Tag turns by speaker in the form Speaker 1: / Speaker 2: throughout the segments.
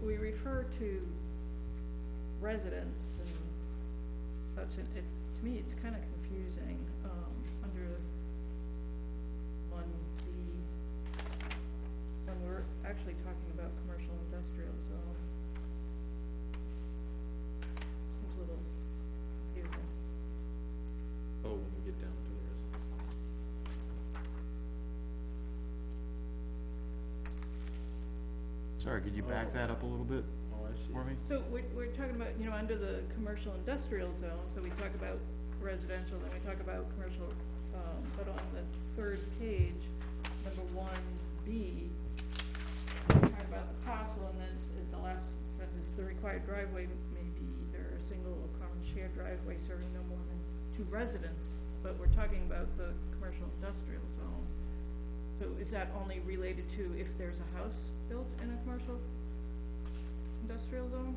Speaker 1: refer to residents and such, and it, to me, it's kinda confusing, um, under one B, when we're actually talking about commercial industrial zone. Seems a little confusing.
Speaker 2: Oh, when we get down to
Speaker 3: Sorry, could you back that up a little bit
Speaker 2: it. Oh, I see.
Speaker 3: for me?
Speaker 1: So we're, we're talking about, you know, under the commercial industrial zone, so we talk about residential, then we talk about commercial, um, but on the third page, number one B, we talk about the parcel, and then it's, at the last sentence, the required driveway may be either a single or common shared driveway serving no more than two residents, but we're talking about the commercial industrial zone. So is that only related to if there's a house built in a commercial industrial zone?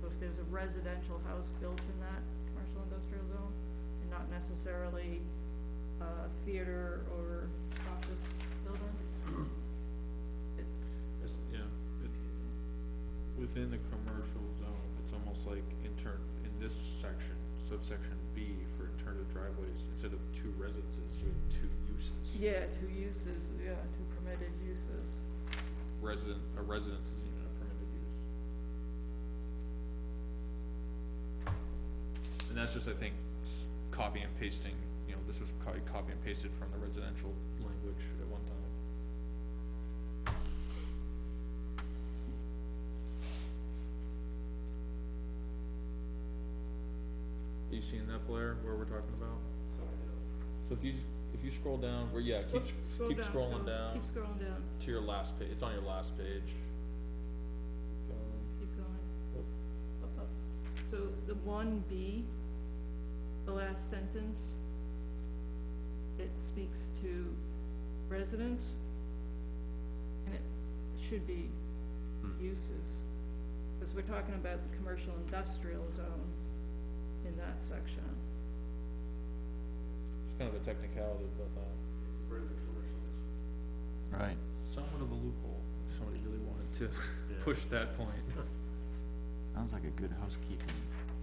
Speaker 1: So if there's a residential house built in that commercial industrial zone, and not necessarily a theater or office building?
Speaker 2: It's- Yeah, it- within the commercial zone, it's almost like in turn, in this section, subsection B for alternative driveways, instead of two residences, you have two uses.
Speaker 1: Yeah, two uses, yeah, two permitted uses.
Speaker 2: Resident, a residence isn't even a permitted use. And that's just, I think, s- copy and pasting, you know, this was co- copy and pasted from the residential language at one time. You seen that, Blair, where we're talking about? So if you, if you scroll down, where, yeah, keep,
Speaker 1: Oops, scroll
Speaker 2: keep
Speaker 1: down,
Speaker 2: scrolling
Speaker 1: scroll-
Speaker 2: down
Speaker 1: Keep scrolling down,
Speaker 2: to your last page. It's on your last page.
Speaker 1: keep going. Up, up. So the one B, the last sentence, it speaks to residents, and it should be uses. Because we're talking about the commercial industrial zone in that section.
Speaker 2: It's kind of a technicality, but uh,
Speaker 3: Right.
Speaker 2: somewhat of a loophole. if Somebody really wanted to push that point.
Speaker 3: Sounds like a good housekeeping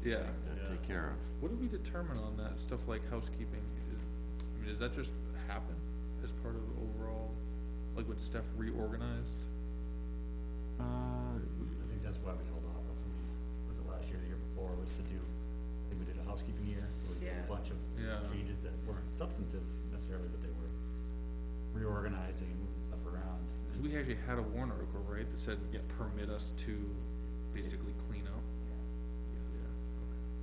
Speaker 2: Yeah.
Speaker 3: to
Speaker 4: Yeah.
Speaker 3: take care of.
Speaker 2: What do we determine on that stuff like housekeeping? Is, I mean, does that just happen as part of overall, like when stuff reorganized?
Speaker 3: Uh,
Speaker 4: I think that's why we held off on some of these, was it last year, the year before, was to do, I think we did a housekeeping year, where we did
Speaker 1: Yeah.
Speaker 4: a bunch of
Speaker 2: Yeah.
Speaker 4: changes that weren't substantive necessarily, but they were reorganizing, moving stuff around.
Speaker 2: Cause we actually had a warrant article, right, that said, yeah, permit us to basically clean up? Yeah.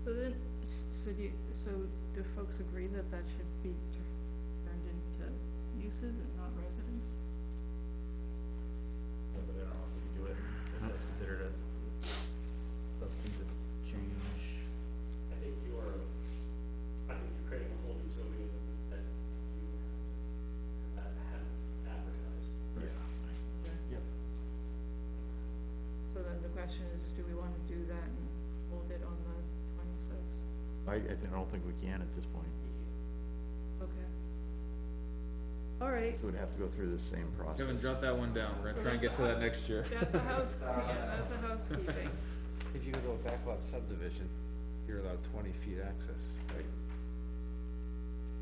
Speaker 1: So then, s- so do, you- so do folks agree that that should be tur- turned into uses and not residents?
Speaker 4: But I don't know if we could do it, if that's considered a substantive change.
Speaker 5: I think you are, I think you're creating a whole new zoning that you have have advertised.
Speaker 1: So then the question is, do we wanna do that and hold it on the twenty-sixth?
Speaker 4: I, I don't think we can at this point,
Speaker 1: Okay. All right,
Speaker 4: we'd have to go through the same process.
Speaker 2: Kevin, jot that one down. We're
Speaker 1: So
Speaker 2: gonna try and get
Speaker 1: that's
Speaker 2: to
Speaker 1: a-
Speaker 2: that next year.
Speaker 1: that's a house, yeah, that's a housekeeping.
Speaker 6: If you go to a backlot subdivision, you're allowed twenty feet access, right?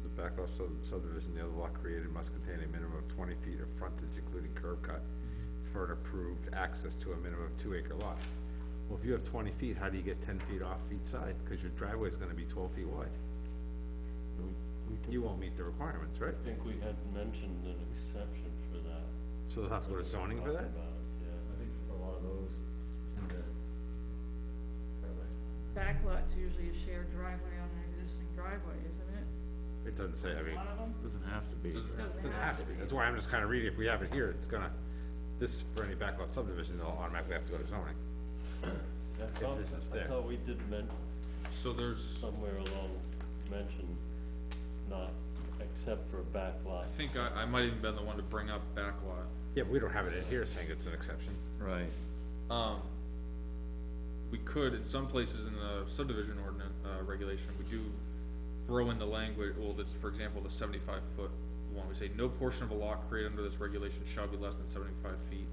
Speaker 7: The backlot sub- subdivision, the other lot created must contain a minimum of twenty feet of frontage, including curb cut, for an approved access to a minimum of two acre lot. Well, if you have twenty feet, how do you get ten feet off each side? Cause your driveway's gonna be twelve feet wide. You won't meet the requirements, right?
Speaker 8: I think we had mentioned an exception for that.
Speaker 7: So they'll have to go to zoning for
Speaker 8: Talked
Speaker 7: that?
Speaker 8: about it,
Speaker 4: I think for a lot of those, and the,
Speaker 1: Backlot's usually a shared driveway on an existing driveway, isn't it?
Speaker 7: It doesn't say, I mean,
Speaker 1: One of them?
Speaker 3: doesn't have to be.
Speaker 2: Doesn't-
Speaker 1: Doesn't
Speaker 7: it has to be. That's why I'm just kinda reading, if we have it here, it's gonna, this, for any backlot subdivision, they'll automatically have to go to zoning.
Speaker 8: yeah. I thought,
Speaker 7: this is
Speaker 8: I
Speaker 7: there.
Speaker 8: thought we did men,
Speaker 2: So there's.
Speaker 8: somewhere along, mention not except for backlot.
Speaker 2: I think I, I might even been the one to bring up backlot.
Speaker 7: Yeah, but we don't have it in here saying it's an exception.
Speaker 3: Right.
Speaker 2: Um, we could, in some places in the subdivision ordinance, uh, regulation, we do throw in the language, well, this, for example, the seventy-five foot one, we say, no portion of a lot created under this regulation shall be less than seventy-five feet